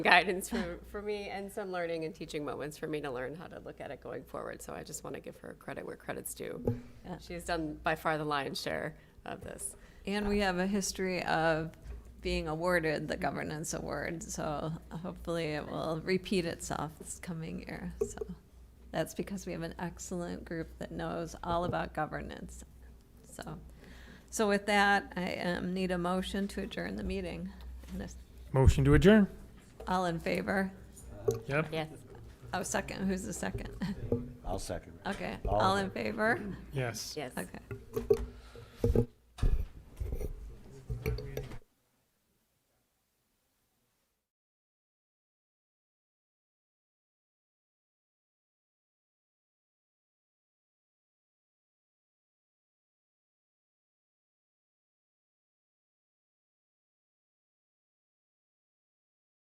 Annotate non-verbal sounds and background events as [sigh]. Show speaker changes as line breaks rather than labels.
guidance for, for me and some learning and teaching moments for me to learn how to look at it going forward. So I just want to give her credit where credit's due.
Yeah.
She has done by far the lion's share of this.
And we have a history of being awarded the governance award, so hopefully it will repeat itself this coming year. So that's because we have an excellent group that knows all about governance. So, so with that, I um, need a motion to adjourn the meeting. And if-
Motion to adjourn.
All in favor?
Yep.
Yes.
Oh, second, who's the second? [laughs]
I'll second.
Okay,
All in
all in favor?
Yes.
Yes.
Okay.